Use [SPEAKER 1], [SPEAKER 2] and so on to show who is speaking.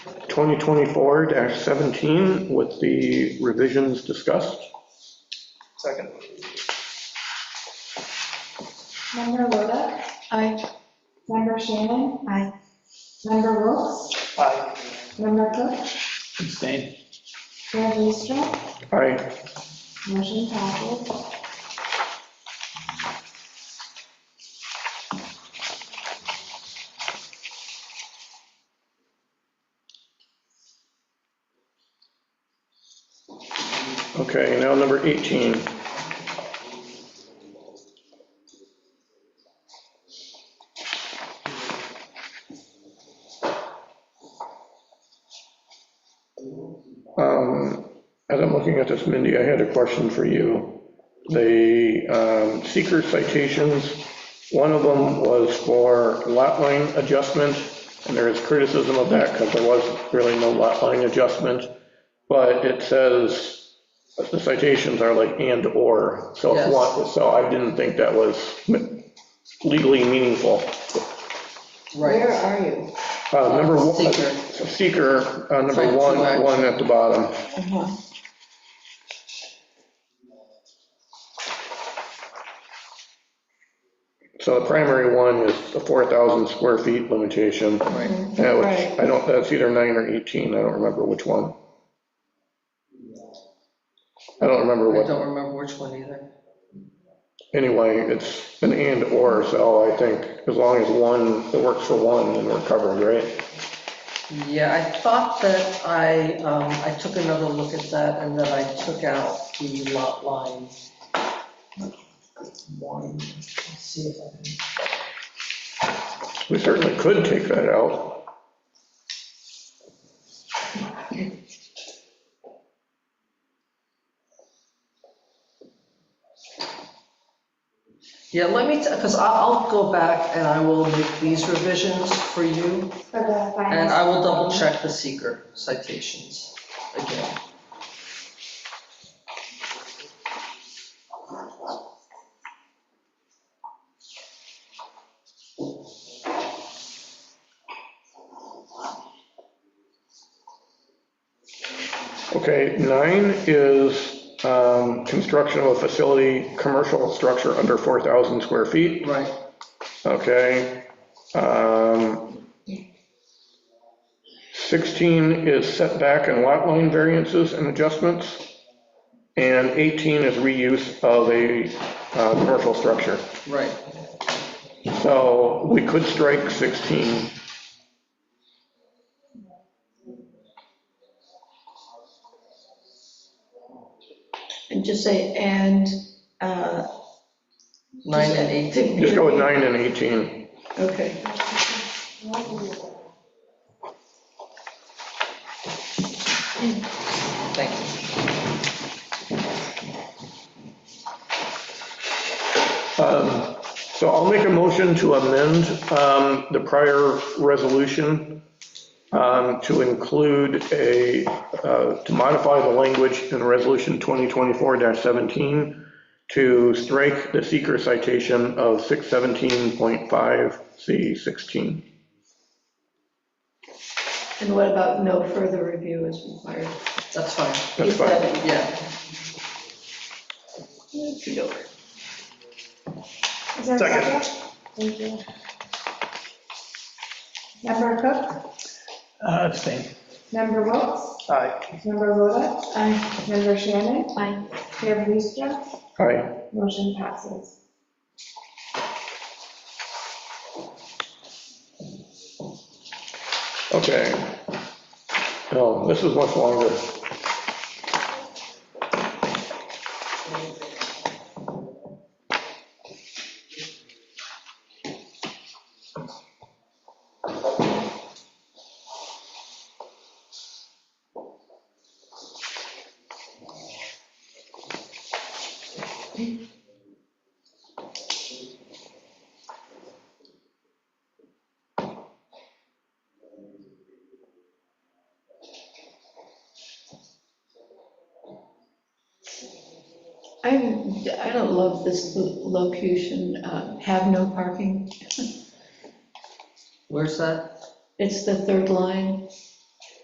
[SPEAKER 1] 2024-17 with the revisions discussed.
[SPEAKER 2] Second.
[SPEAKER 3] Member Rodak?
[SPEAKER 4] Aye.
[SPEAKER 3] Member Shannon?
[SPEAKER 4] Aye.
[SPEAKER 3] Member Wilks?
[SPEAKER 2] Aye.
[SPEAKER 3] Member Cook?
[SPEAKER 5] Abstain.
[SPEAKER 3] Mayor Liestra?
[SPEAKER 1] Aye.
[SPEAKER 3] Motion passes.
[SPEAKER 1] Okay, now number 18. Um, As I'm looking at this, Mindy, I had a question for you. The um, seeker citations, one of them was for lot line adjustment, and there is criticism of that because there was really no lot line adjustment. But it says, the citations are like and/or, so if
[SPEAKER 6] Yes.
[SPEAKER 1] one, so I didn't think that was legally meaningful.
[SPEAKER 6] Right,
[SPEAKER 4] are you?
[SPEAKER 1] Uh, Number one.
[SPEAKER 6] Seeker.
[SPEAKER 1] Seeker, uh, number
[SPEAKER 6] Front
[SPEAKER 1] one,
[SPEAKER 6] two Uh-huh. lines.
[SPEAKER 1] one at the bottom. So the primary one is the 4,000 square feet limitation,
[SPEAKER 6] right.
[SPEAKER 1] uh, which
[SPEAKER 4] Right.
[SPEAKER 1] I don't, that's either nine or 18, I don't remember which one. I don't remember
[SPEAKER 6] I
[SPEAKER 1] what,
[SPEAKER 6] don't remember which one either.
[SPEAKER 1] anyway, it's an and/or, so I think as long as one, it works for one, then we're covered, right?
[SPEAKER 6] Yeah, I thought that I, um, I took another look at that and then I took out the lot line. One, let's see if I can,
[SPEAKER 1] We certainly could take that out.
[SPEAKER 6] yeah, let me, because I'll, I'll go back and I will make these revisions for you
[SPEAKER 3] For the final.
[SPEAKER 6] and I will double check the seeker citations again.
[SPEAKER 1] Okay, nine is um, construction of a facility, commercial structure under 4,000 square feet.
[SPEAKER 6] Right,
[SPEAKER 1] Okay. um, 16 is setback and lot line variances and adjustments. And 18 is reuse of a uh, commercial structure.
[SPEAKER 6] right.
[SPEAKER 1] So we could strike 16.
[SPEAKER 4] And just say, and, uh.
[SPEAKER 6] Nine and eight.
[SPEAKER 1] Just go with 9 and 18.
[SPEAKER 4] Okay.
[SPEAKER 6] Thank you.
[SPEAKER 1] Um, So I'll make a motion to amend um, the prior resolution um, to include a, uh, to modify the language in Resolution 2024-17 to strike the seeker citation of 617.5C16.
[SPEAKER 4] And what about no further review is required?
[SPEAKER 6] That's fine,
[SPEAKER 1] That's fine.
[SPEAKER 6] yeah.
[SPEAKER 4] Okey-doke.
[SPEAKER 3] Is there a
[SPEAKER 2] Second.
[SPEAKER 3] second? Thank you. Member Cook?
[SPEAKER 5] Uh, Abstain.
[SPEAKER 3] Member Wilks?
[SPEAKER 2] Aye.
[SPEAKER 3] Member Rodak?
[SPEAKER 4] Aye.
[SPEAKER 3] Member Shannon?
[SPEAKER 4] Aye.
[SPEAKER 3] Mayor Liestra?
[SPEAKER 1] Aye.
[SPEAKER 3] Motion passes.
[SPEAKER 1] Okay. No, this is much longer.
[SPEAKER 4] I'm, I don't love this lo- locution, uh, have no parking.
[SPEAKER 6] Where's that?
[SPEAKER 4] It's the third line.